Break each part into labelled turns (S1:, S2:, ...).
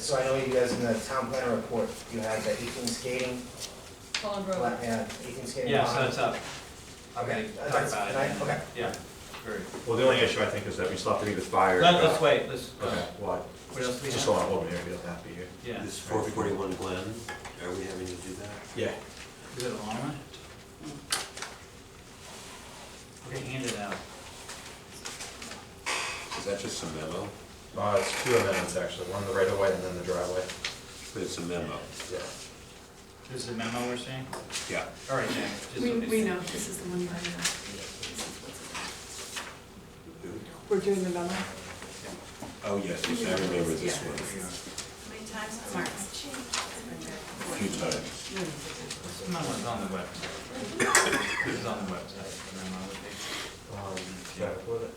S1: So I know you guys in the town plan report, you have the eighteen skating,
S2: Pond Road.
S1: yeah, eighteen skating.
S3: Yeah, so
S1: pond.
S3: it's up.
S1: Okay,
S3: Talk
S1: that's,
S3: about it.
S1: can I- okay,
S3: Yeah, very.
S4: Well, the only issue I think is that we still have to meet with fire.
S3: Let- Let's wait, let's, uh,
S4: Okay, what?
S3: what else do we
S4: Just
S3: have?
S4: hold on, hold on, we don't have to be here.
S3: Yeah,
S5: This four forty-one Glen, are we having to do that?
S4: Yeah.
S3: is it a long one? Okay, hand it out.
S5: Is that just a memo?
S4: Uh, it's two amendments actually, one the right of way and then the driveway.
S5: But it's a memo.
S4: Yeah.
S3: This is a memo we're saying?
S5: Yeah.
S3: All right, Jack. just-
S6: We, we know, this is the one you have now. We're doing the memo?
S5: Oh, yes, yes, I remember this one,
S6: Mark.
S5: a few times.
S3: This memo's on the website. This is on the website, the memo would be.
S4: Um, yeah, what it-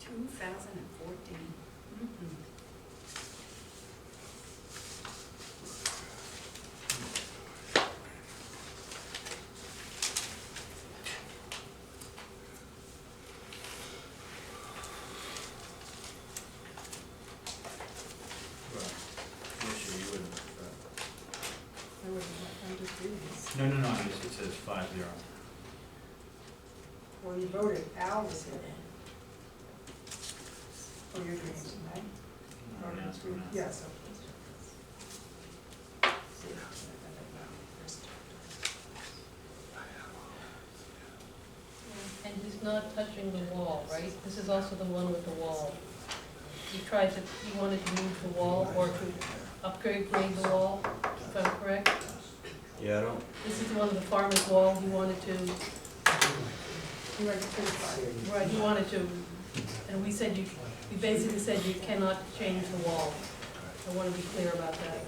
S6: Two thousand and fourteen.
S3: Well, I'm sure you wouldn't, but-
S6: I would have to do this.
S3: No, no, no, it just- it says five zero.
S7: Well, you voted, Al was here. Oh, For your dreams, right?
S6: Oh,
S3: No, no, it's not.
S7: Yes.
S2: And he's not touching the wall, right? This is also the one with the wall. He tried to, he wanted to move the wall or to upgrade grade the wall, if I'm correct.
S4: Yeah, I don't,
S2: This is the one with the farmer's wall, he wanted to,
S7: You were certified.
S2: right, he wanted to, and we said you, we basically said you cannot change the wall. I want to be clear about that.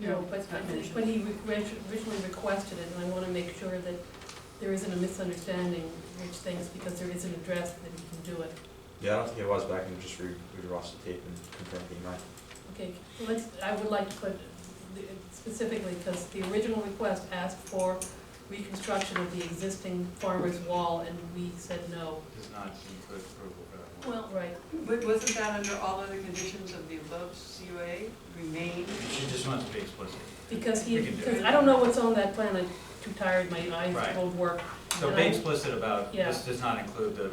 S2: No, but
S6: Not mentioned.
S2: when he re- originally requested it, and I want to make sure that there isn't a misunderstanding, which things, because there is an address that he can do it.
S4: yeah, I don't think it was, but I can just re, read Ross the tape and confirm the amount.
S2: Okay, let's, I would like to put the- specifically, because the original request asked for reconstruction of the existing farmer's wall, and we said no.
S3: Does not include approval for that
S2: Well,
S3: one.
S2: right,
S6: But wasn't that under all other conditions of the above CUA remain?
S3: She just wants to be explicit.
S2: because he,
S3: We can do
S2: because
S3: it.
S2: I don't know what's on that plan, I'm too tired, my eyes
S3: Right.
S2: won't work.
S3: So
S2: And
S3: be
S2: I-
S3: explicit about, this
S2: Yeah.
S3: does not include the,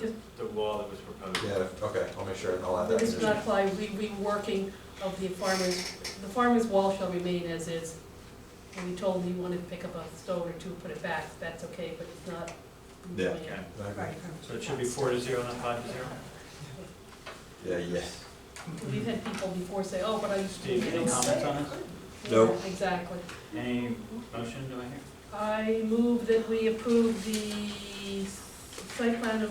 S2: Just-
S3: the wall that was proposed.
S4: Yeah, okay, I'll make sure and I'll add that.
S2: This does
S4: condition.
S2: not apply re- reworking of the farmer's, the farmer's wall shall remain as is. And we told him he wanted to pick up a stone or two, put it back, that's okay, but it's not.
S4: Yeah.
S3: Okay,
S4: I agree.
S7: Right.
S3: so it should be four to zero, not five to zero?
S4: Yeah, yeah.
S2: We've had people before say, oh, but I used to.
S3: Steve, any comments on it?
S5: No.
S2: Exactly.
S3: Any motion, do I hear?
S2: I move that we approve the site plan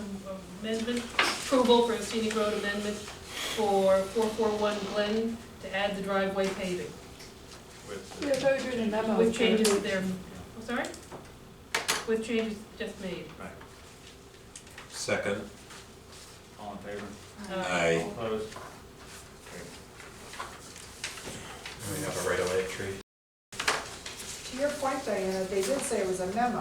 S2: amendment, approval for a scenic road amendment for four-four-one Glen to add the driveway paving.
S3: With uh,
S7: Yeah, I
S3: the-
S7: thought we were doing a memo.
S2: Um, With changes there, oh, sorry? With changes just made.
S3: Right,
S5: Second,
S3: all in favor?
S2: Uh,
S5: I,
S3: All opposed?
S4: And we have a right of way tree.
S7: To your point, Diana, they did say it was a memo.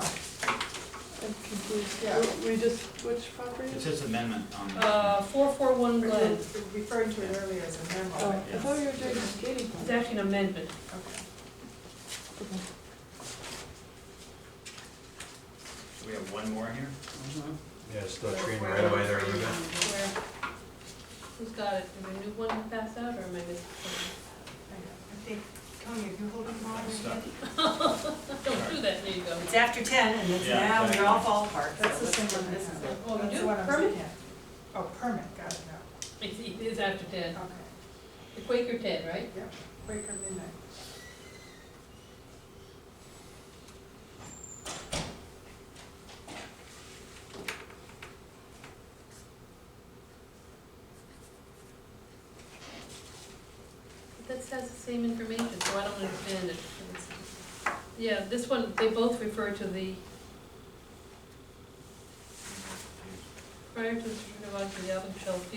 S7: I'm confused, yeah.
S6: We just, which property?
S3: It says amendment on.
S2: Uh, four-four-one
S7: We
S2: Glen,
S7: were Referring to it earlier as a
S6: Oh,
S7: memo.
S6: I thought you were doing the skating
S2: it's
S6: part.
S2: actually an amendment.
S7: Okay.
S3: We have one more here?
S4: Yeah, it's still a tree in the right of way there, moving.
S2: Where- Who's got it? Did a new one pass out, or am I missing?
S7: I think, Tony, if you hold on
S3: I'm stuck.
S2: Don't do that, there you go.
S8: It's after ten and it's
S3: Yeah,
S8: now,
S3: exactly.
S8: we all fall apart.
S7: That's the
S8: So
S7: same
S8: let's-
S7: one. I
S8: This is
S7: have.
S8: it.
S2: Oh, you
S7: That's
S2: do?
S7: what I'm
S2: Permit?
S7: looking at. Oh, permit, got it now,
S2: It's, it is after ten,
S7: okay.
S2: the Quaker ten, right?
S7: Yep, Quaker Midnight.
S2: But That says the same information, so I don't understand it. It's- Yeah, this one, they both refer to the prior to the certificate of occupancy, the applicant shall feel